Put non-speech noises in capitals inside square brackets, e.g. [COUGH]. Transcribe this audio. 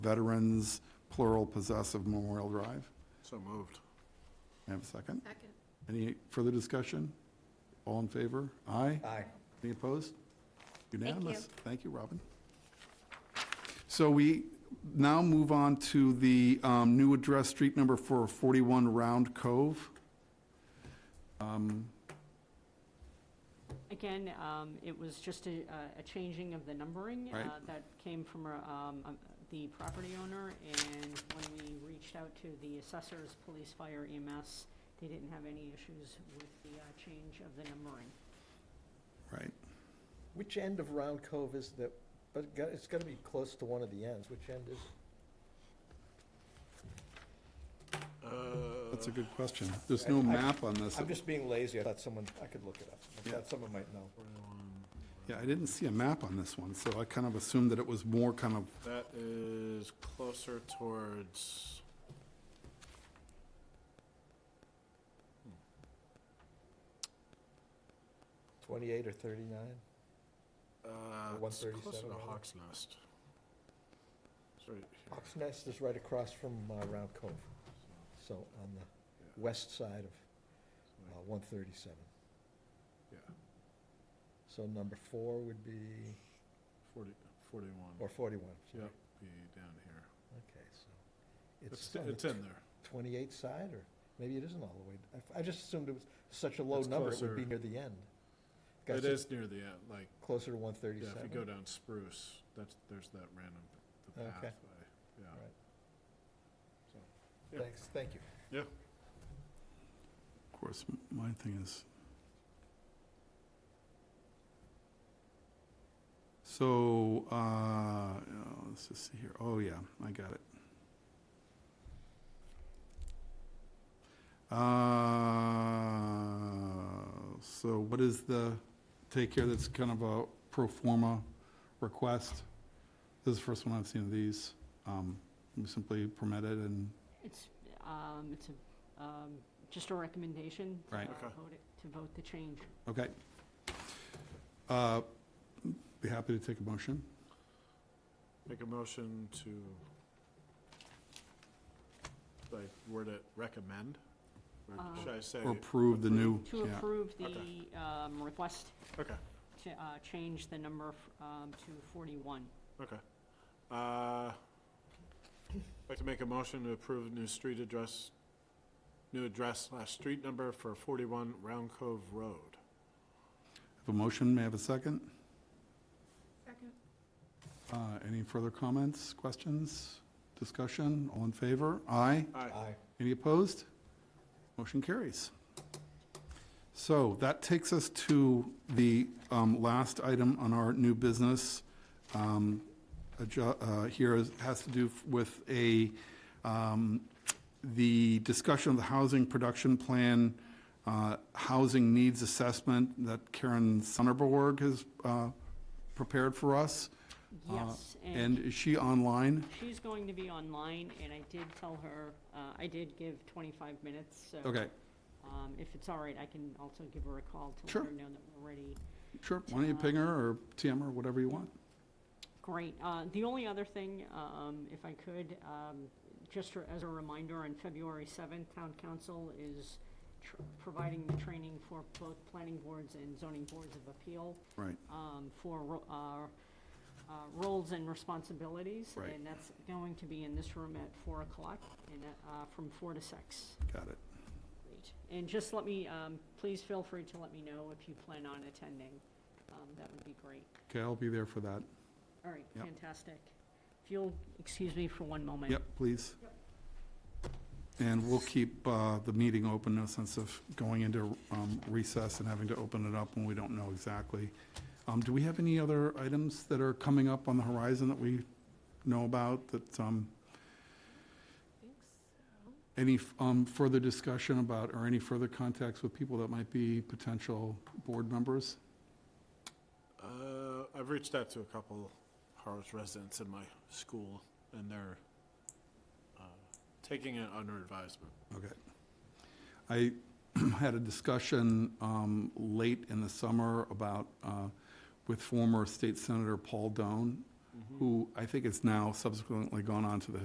Veterans, plural, possessive Memorial Drive. So moved. May I have a second? Second. Any further discussion? All in favor? Aye? Aye. Any opposed? Unanimous. Thank you, Robin. So we now move on to the um, new address, street number for 41 Round Cove. Um, Again, um, it was just a, a changing of the numbering. uh, Right. That came from, uh, um, um, the property owner, and when we reached out to the assessors, police, fire, EMS, they didn't have any issues with the, uh, change of the numbering. Right. Which end of Round Cove is that, but it got- it's gotta be close to one of the ends, which end is? That's a good question. There's no map on this. I'm just being lazy, I thought someone, I could look it up, I Yeah. thought someone might know. Uh, Yeah, I didn't see a map on this one, so I kind of assumed that it was more kind of, That is closer towards. Twenty-eight or thirty-nine? Uh, Or it's closer 137 to rather. Hawks Nest. It's right here. Hawks Nest is right across from uh, Round Cove, so on the west side of uh, one thirty-seven. Yeah, So number four would be, 40, 41. or forty-one. Yep, be down here. Okay, so It's, it's on it's the in there. twenty-eight side, or maybe it isn't all the way. I- I just assumed it was such a low It's number, it would closer. be near the end. Guys, It is near the end, like, Closer to one yeah, thirty-seven? if you go down Spruce, that's, there's that random, the Okay. pathway, yeah. Right. So, yeah. Thanks, thank you. Yeah. of course, my thing is. So, uh, oh, let's just see here. Oh, yeah, I got it. Uh, So what is the take here that's kind of a pro forma request? This is the first one I've seen of these. Um, We simply permit it and It's, um, it's a, um, just a recommendation. to, Right. uh, Okay. vote it- To vote the change. Okay. Uh, Be happy to take a motion. Make a motion to, like, word it recommend? Or Uh, Should I say? Or approve the new, To yeah, approve the, Okay. um, request Okay, to, uh, change the number, f- um, to forty-one. okay. Uh, I'd like to make a motion to approve new street address, new address slash street number for 41 Round Cove Road. Have a motion, may I have a second? Second. Uh, Any further comments, questions, discussion? All in favor? Aye. Aye. Aye. Any opposed? Motion carries. So that takes us to the um, last item on our new business. Um, adju- uh, Here is- has to do with a, um, the discussion of the housing production plan, uh, housing needs assessment that Karen Sonderborg has uh, prepared for us. Uh, Yes, And is she online? She's going to be online, and I did tell her, uh, I did give 25 minutes, so. Okay, um, If it's all right, I can also give her a call to Sure. let her know that we're ready. sure. Why don't you ping her or TM her, whatever you want? Great. Uh, The only other thing, um, if I could, um, just for- as a reminder, on February 7th, Town Council is tr- providing the training for both planning boards and zoning boards of appeal. Right. um, for ro- uh, uh, roles and responsibilities. Right. And that's going to be in this room at 4 o'clock, and uh, from 4 to 6. Got it. Great. And just let me, um, please feel free to let me know if you plan on attending. Um, That would be great. Okay, I'll be there for that. All right, Yep. fantastic. If you'll excuse me for one moment. Yep, please. And we'll keep uh, the meeting open, no sense of going into um, recess and having to open it up when we don't know exactly. Um, Do we have any other items that are coming up on the horizon that we know about, that, um, any um, further discussion about, or any further contacts with people that might be potential board members? Uh, I've reached out to a couple Harwich residents in my school, and they're uh, taking it under advisement. Okay. I [CLEARS THROAT] had a discussion um, late in the summer about, uh, with former State Senator Paul Doan who I think has now subsequently gone on to the